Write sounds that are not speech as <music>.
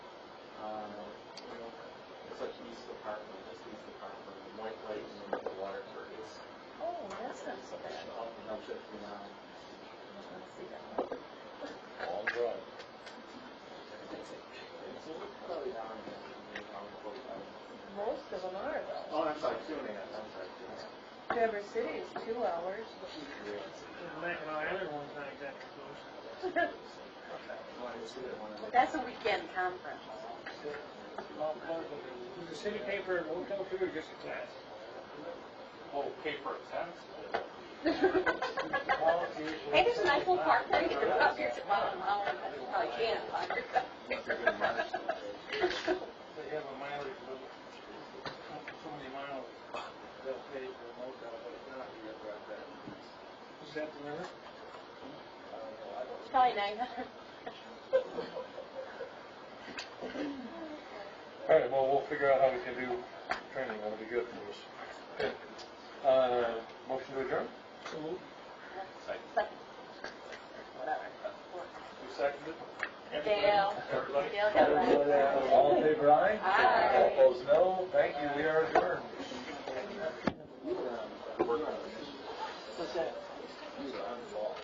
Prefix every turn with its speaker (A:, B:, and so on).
A: Um, park from, this is the park from White Lake and then to Waterford. It's
B: Oh, that's not so bad.
A: up and up to now.
B: Let's see that one.
A: Long drive. It's probably down in the, around forty-five.
B: Most of them are though.
A: Oh, I'm sorry, two and a half, I'm sorry, two and a half.
B: Traverse City is two hours. <laughs>
C: Mackinac Island one's not exactly close.
A: Well, I just did it one of the-
D: That's a weekend conference.
C: Well, close, but Does the city pay for a hotel too, or just a class?
A: Oh, pay for it, tax?
D: Hey, there's a nice little park there, you can walk here, it's about an hour, but you probably can't.
A: That's a good margin.
C: They have a mileage limit. Up to So many miles, they'll pay for a motel, but it's not here about that. Is that the limit?
D: It's probably nine hundred.
E: All right, well, we'll figure out how we can do training, that'll be good for us. Okay. Uh, motion to adjourn?
D: Whatever.
E: You seconded?
D: <laughs> Dale, Dale got that.
E: All in favor, aye?
D: Aye.
E: All opposed, no, thank you, we are adjourned.
A: You um, were on, working on this. What's that? You were on the